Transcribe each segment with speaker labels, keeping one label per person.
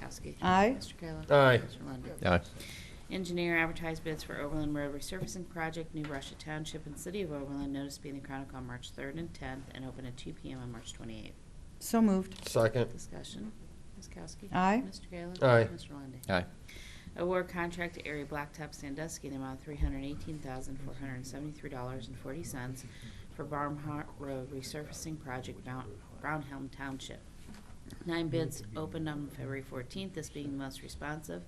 Speaker 1: Kowski.
Speaker 2: Aye.
Speaker 1: Mr. Kayla.
Speaker 3: Aye.
Speaker 1: Mr. Lundey.
Speaker 4: Aye.
Speaker 1: Engineer advertised bids for Overland Road Resurfacing Project, New Russia Township and City of Overland, notice being the Chronicle on March 3rd and 10th, and open at 2 PM on March 28th.
Speaker 2: So moved.
Speaker 3: Second.
Speaker 1: Discussion. Ms. Kowski.
Speaker 2: Aye.
Speaker 1: Mr. Kayla.
Speaker 3: Aye.
Speaker 1: Mr. Lundey.
Speaker 4: Aye.
Speaker 1: Award contract to Area Blacktop Sandusky in the amount of three hundred eighteen thousand, four hundred seventy-three dollars and forty cents for Barnhart Road resurfacing project, Mount Brownhelm Township. Nine bids opened on February fourteenth, this being the most responsive,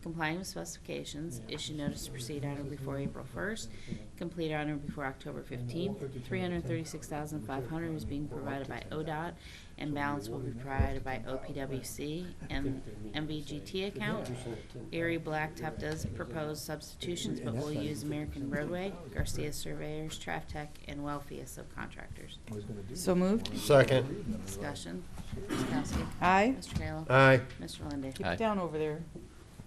Speaker 1: complying with specifications, issue notice to proceed on or before April first, complete on or before October fifteenth. Three hundred thirty-six thousand, five hundred is being provided by ODOT, and balance will be provided by OPWC and MVGT account. Erie Blacktop does propose substitutions, but will use American Roadway, Garcia Surveyors, Traftech, and Welfi as subcontractors.
Speaker 2: So moved.
Speaker 3: Second.
Speaker 1: Discussion. Ms. Kowski.
Speaker 2: Aye.
Speaker 1: Mr. Kayla.
Speaker 3: Aye.
Speaker 1: Mr. Lundey.
Speaker 2: Keep
Speaker 4: Aye.
Speaker 2: it down over there.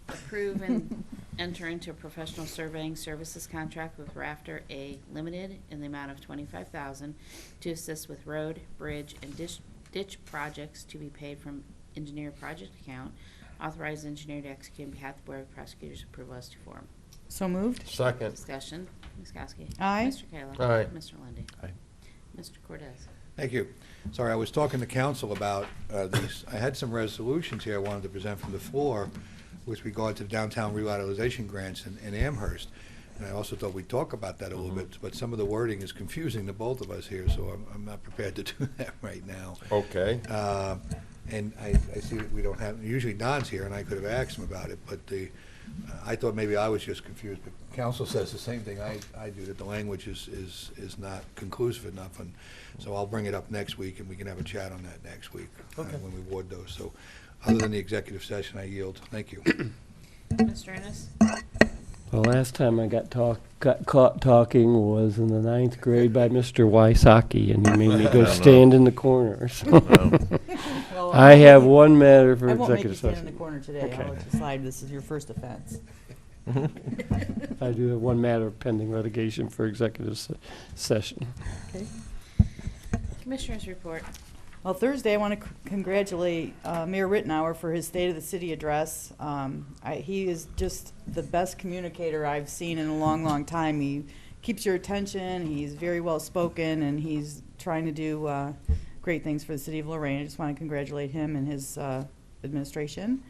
Speaker 1: Approve and enter into a professional surveying services contract with Rafter A Limited in the amount of twenty-five thousand to assist with road, bridge, and ditch, ditch projects to be paid from engineer project account. Authorize engineer to execute on behalf of the Board of Prosecutors' approval as to form.
Speaker 2: So moved.
Speaker 3: Second.
Speaker 1: Discussion, Ms. Kowski.
Speaker 2: Aye.
Speaker 1: Mr. Kayla.
Speaker 3: Aye.
Speaker 1: Mr. Lundey.
Speaker 4: Aye.
Speaker 1: Mr. Cordez.
Speaker 5: Thank you. Sorry, I was talking to council about uh, these, I had some resolutions here I wanted to present from the floor with regard to downtown revitalization grants in- in Amherst. And I also thought we'd talk about that a little bit, but some of the wording is confusing to both of us here, so I'm- I'm not prepared to do that right now.
Speaker 3: Okay.
Speaker 5: Uh, And I, I see that we don't have, usually Don's here, and I could have asked him about it, but the, I thought maybe I was just confused, but council says the same thing I, I do, that the language is, is, is not conclusive enough, and so I'll bring it up next week, and we can have a chat on that next week. uh,
Speaker 3: Okay.
Speaker 5: When we award those, so, other than the executive session, I yield. Thank you.
Speaker 1: Mr. Ennis.
Speaker 6: The last time I got talk, got caught talking was in the ninth grade by Mr. Wysocki, and he made me go stand in the corner. so.
Speaker 2: Well,
Speaker 6: I have one matter for
Speaker 2: I won't make you
Speaker 6: executive
Speaker 2: stand in the
Speaker 6: session.
Speaker 2: corner today. I'll let you slide. This is your first offense.
Speaker 6: I do have one matter of pending litigation for executive se- session.
Speaker 1: Commissioners report.
Speaker 2: Well, Thursday, I want to congratulate uh, Mayor Rittenhour for his State of the City address. Um, I- He is just the best communicator I've seen in a long, long time. He keeps your attention, he's very well-spoken, and he's trying to do uh, great things for the city of Lorraine. I just want to congratulate him and his uh, administration.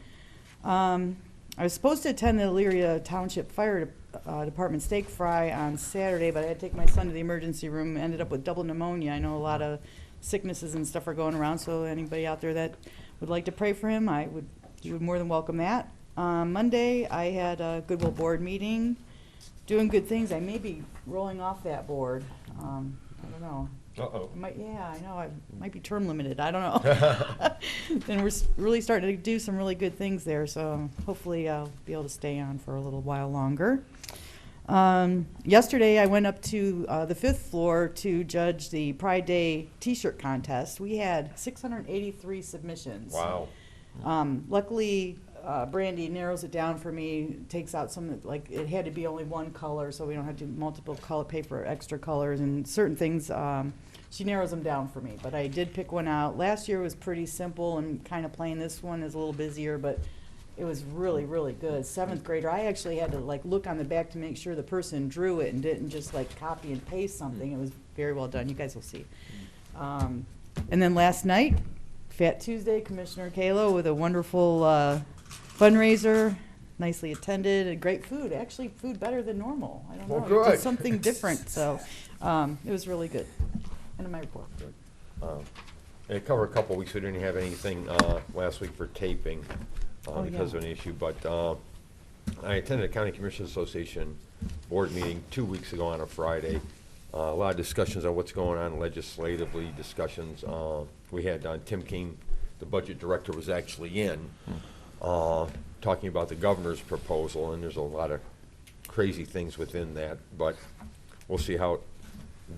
Speaker 2: Um, I was supposed to attend the Elyria Township Fire De- uh, Department steak fry on Saturday, but I had to take my son to the emergency room, ended up with double pneumonia. I know a lot of sicknesses and stuff are going around, so anybody out there that would like to pray for him, I would, you would more than welcome that. Um, Monday, I had a Goodwill Board meeting, doing good things. I may be rolling off that board. Um, I don't know.
Speaker 3: Uh-oh.
Speaker 2: I might, yeah, I know, I might be term limited, I don't know. And we're s- really starting to do some really good things there, so hopefully I'll be able to stay on for a little while longer. Um, yesterday, I went up to, uh, the fifth floor to judge the Pride Day T-shirt contest. We had six hundred and eighty-three submissions.
Speaker 3: Wow.
Speaker 2: Um, luckily, uh, Brandy narrows it down for me, takes out some, like, it had to be only one color, so we don't have to do multiple color, pay for extra colors and certain things. Um, she narrows them down for me, but I did pick one out. Last year was pretty simple and kind of plain. This one is a little busier, but it was really, really good. Seventh grader, I actually had to like look on the back to make sure the person drew it and didn't just like copy and paste something. It was very well done. You guys will see. Um, and then last night, Fat Tuesday, Commissioner Kalo with a wonderful uh, fundraiser, nicely attended, and great food. Actually, food better than normal. I don't know.
Speaker 3: Well,
Speaker 2: It did
Speaker 3: good.
Speaker 2: something different, so um, it was really good. End of my report.
Speaker 3: Um, It covered a couple weeks, we didn't have anything uh, last week for taping uh,
Speaker 2: Oh,
Speaker 3: because
Speaker 2: yeah.
Speaker 3: of an issue, but uh, I attended a County Commissioners Association board meeting two weeks ago on a Friday. Uh, A lot of discussions on what's going on legislatively, discussions. uh, We had uh, Tim King, the budget director, was actually in, uh, talking about the governor's proposal, and there's a lot of crazy things within that, but we'll see how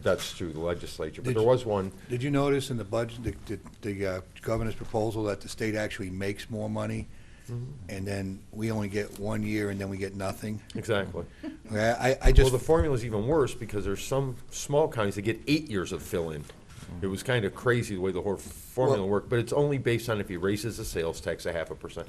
Speaker 3: that's through the legislature. But
Speaker 5: Did
Speaker 3: there
Speaker 5: you-
Speaker 3: was one
Speaker 5: Did you notice in the budget, the, the the, uh, governor's proposal, that the state actually makes more money?
Speaker 3: Mm-hmm.
Speaker 5: And then we only get one year, and then we get nothing?
Speaker 3: Exactly.
Speaker 5: Okay, I, I
Speaker 3: Well,
Speaker 5: just,
Speaker 3: the formula's even worse because there's some small counties that get eight years of fill-in. It was kind of crazy the way the whole formula
Speaker 5: Well-
Speaker 3: worked, but it's only based on if he raises the sales tax a half a percent.